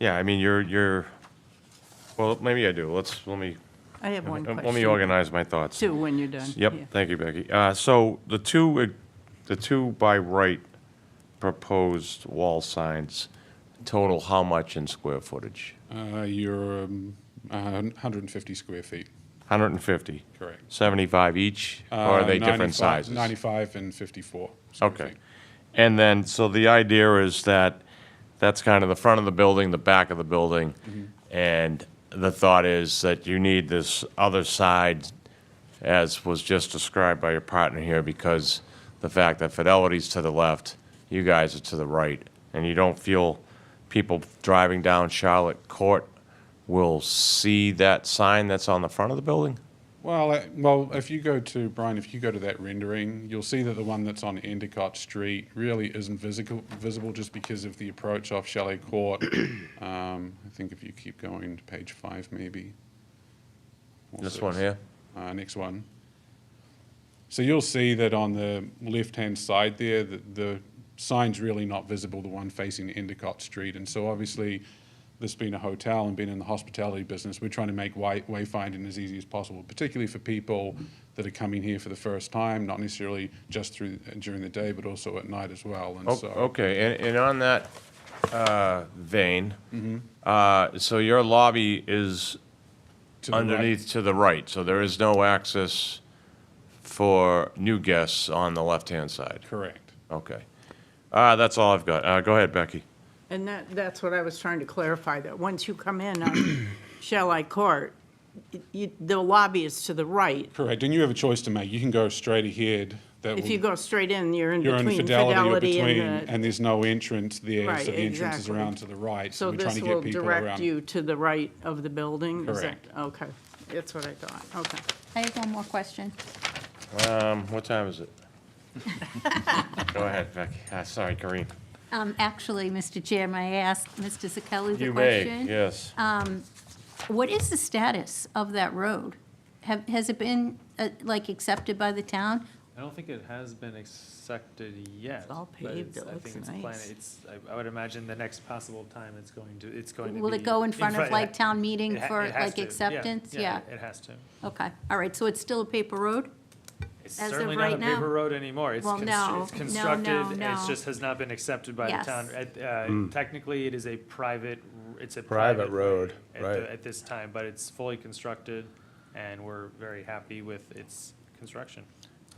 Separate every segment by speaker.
Speaker 1: Yeah, I mean, you're, you're, well, maybe I do. Let's, let me, uh,
Speaker 2: I have one question.
Speaker 1: let me organize my thoughts.
Speaker 2: Sue, when you're done. Yeah.
Speaker 1: Yep, thank you, Becky. Uh, So the two, uh, the two by right proposed wall signs total how much in square footage?
Speaker 3: Uh, You're um, a hun- 150 square feet,
Speaker 1: 150?
Speaker 3: correct.
Speaker 1: 75 each? Or are
Speaker 3: Uh,
Speaker 1: they different
Speaker 3: 95
Speaker 1: sizes?
Speaker 3: 95 and 54. square
Speaker 1: Okay.
Speaker 3: feet.
Speaker 1: And then, so the idea is that that's kind of the front of the building, the back of the building, and the thought is that you need this other side, as was just described by your partner here, because the fact that Fidelity's to the left, you guys are to the right, and you don't feel people driving down Charlotte Court will see that sign that's on the front of the building?
Speaker 3: Well, uh, well, if you go to, Brian, if you go to that rendering, you'll see that the one that's on Endicott Street really isn't visible, visible just because of the approach off Chalet Court. Um, I think if you keep going to page five, maybe. or
Speaker 1: This one
Speaker 3: six.
Speaker 1: here?
Speaker 3: Uh, next one. So you'll see that on the left-hand side there, the, the sign's really not visible, the one facing Endicott Street. And so obviously, this being a hotel and being in the hospitality business, we're trying to make way, wayfinding as easy as possible, particularly for people that are coming here for the first time, not necessarily just through, during the day, but also at night as well. And
Speaker 1: Oh,
Speaker 3: so.
Speaker 1: Okay, and, and on that uh, vein, uh, so your lobby is
Speaker 3: Mm-hmm. to the right-
Speaker 1: underneath to the right, so there is no access for new guests on the left-hand side?
Speaker 3: Correct.
Speaker 1: Okay. Uh, That's all I've got. Uh, Go ahead, Becky.
Speaker 2: And that, that's what I was trying to clarify, that once you come in on Shalley Court, y- you, the lobby is to the right.
Speaker 3: Correct. And you have a choice to make. You can go straight ahead. That
Speaker 2: If
Speaker 3: will-
Speaker 2: you go straight in, you're in
Speaker 3: You're in
Speaker 2: between
Speaker 3: Fidelity, you're
Speaker 2: Fidelity
Speaker 3: between,
Speaker 2: and the,
Speaker 3: and there's no entrance there,
Speaker 2: Right,
Speaker 3: so the entrance is
Speaker 2: exactly.
Speaker 3: around to the right.
Speaker 2: so
Speaker 3: we're trying
Speaker 2: this
Speaker 3: to
Speaker 2: will
Speaker 3: get people
Speaker 2: direct
Speaker 3: around.
Speaker 2: you to the right of the building? Is that-
Speaker 3: Correct.
Speaker 2: Okay, that's what I thought, okay.
Speaker 4: I have one more question.
Speaker 1: Um, What time is it? Go ahead, Becky. Uh, Sorry, Kareem.
Speaker 4: Um, Actually, Mr. Chair, may I ask Mr. Sekeli the
Speaker 1: You may,
Speaker 4: question?
Speaker 1: yes.
Speaker 4: What is the status of that road? Have- Has it been, uh, like, accepted by the town?
Speaker 5: I don't think it has been accepted yet.
Speaker 2: It's all
Speaker 5: but
Speaker 2: paved,
Speaker 5: it's-
Speaker 2: it
Speaker 5: I
Speaker 2: looks
Speaker 5: think it's planned-
Speaker 2: nice.
Speaker 5: It's, I- I would imagine the next possible time it's going to, it's going to be.
Speaker 4: Will it go in front of, like, town meeting
Speaker 5: it ha-
Speaker 4: for,
Speaker 5: it has
Speaker 4: like,
Speaker 5: to, yeah,
Speaker 4: acceptance? Yeah,
Speaker 5: It it has to.
Speaker 4: okay, all right, so it's still a paper road?
Speaker 5: It's
Speaker 4: As of
Speaker 5: certainly not
Speaker 4: right
Speaker 5: a
Speaker 4: now?
Speaker 5: paper road anymore. It's
Speaker 4: Well,
Speaker 5: constr-
Speaker 4: no,
Speaker 5: It's
Speaker 4: no,
Speaker 5: constructed,
Speaker 4: no,
Speaker 5: and
Speaker 4: no.
Speaker 5: it's just has not been accepted by the
Speaker 4: Yes.
Speaker 5: town. At, uh, Technically, it is a private, r- it's a
Speaker 6: Hmm. Private
Speaker 5: private.
Speaker 6: road,
Speaker 5: at
Speaker 6: right.
Speaker 5: the- At this time, but it's fully constructed, and we're very happy with its construction.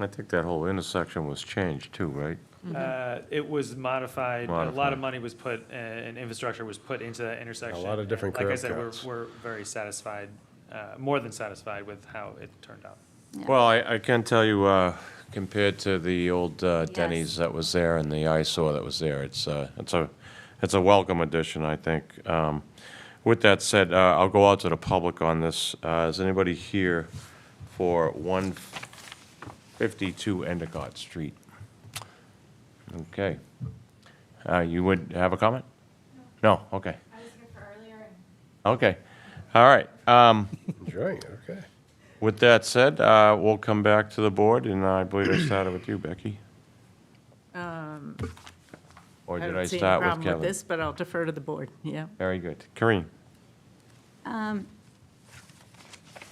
Speaker 1: I think that whole intersection was changed too, right?
Speaker 5: Uh, It was modified, a lot
Speaker 1: Modified.
Speaker 5: of money was put, uh, and infrastructure was put into that intersection.
Speaker 6: lot of
Speaker 5: and
Speaker 6: different curb
Speaker 5: Like I
Speaker 6: cuts.
Speaker 5: said, we're, we're very satisfied, uh, more than satisfied with how it turned out.
Speaker 1: Well, I, I can tell you, uh, compared to the old uh,
Speaker 4: Yes.
Speaker 1: Denny's that was there and the eyesore that was there, it's, uh, it's a, it's a welcome addition, I think. Um, With that said, uh, I'll go out to the public on this. Uh, Is anybody here for 152 Endicott Street? Okay. Uh, You would have a comment? No, okay,
Speaker 7: I was here for earlier and
Speaker 1: okay. All right. Um,
Speaker 6: Enjoying it, okay.
Speaker 1: With that said, uh, we'll come back to the board, and I believe I started with you, Becky. Or
Speaker 2: Um, I
Speaker 1: did I
Speaker 2: don't see any
Speaker 1: start with
Speaker 2: problem with
Speaker 1: Kevin?
Speaker 2: this, but I'll defer to the board, yeah.
Speaker 1: Very good. Kareem?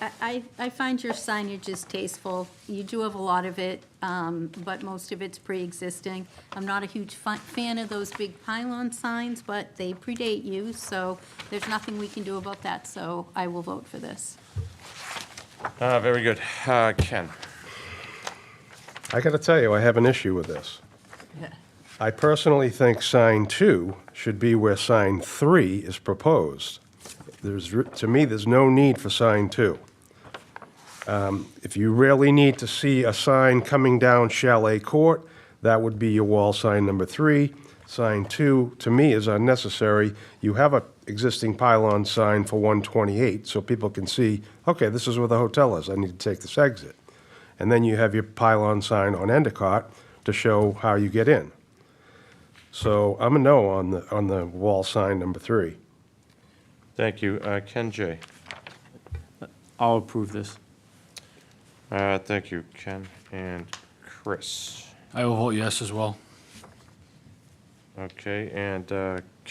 Speaker 4: I- I, I find your signage is tasteful. You do have a lot of it, um, but most of it's pre-existing. I'm not a huge fi- fan of those big pylon signs, but they predate you, so there's nothing we can do about that, so I will vote for this.
Speaker 1: Uh, Very good. Uh, Ken?
Speaker 6: I got to tell you, I have an issue with this. I personally think sign two should be where sign three is proposed. There's, r- to me, there's no need for sign two. Um, If you really need to see a sign coming down Chalet Court, that would be your wall sign number three. Sign two, to me, is unnecessary. You have a existing pylon sign for 128, so people can see, okay, this is where the hotel is, I need to take this exit. And then you have your pylon sign on Endicott to show how you get in. So I'm a no on the, on the wall sign number three.
Speaker 1: Thank you. Uh, Ken J?
Speaker 8: I'll approve this.
Speaker 1: Uh, Thank you, Ken and Chris.
Speaker 9: I will vote yes as well.
Speaker 1: Okay, and uh,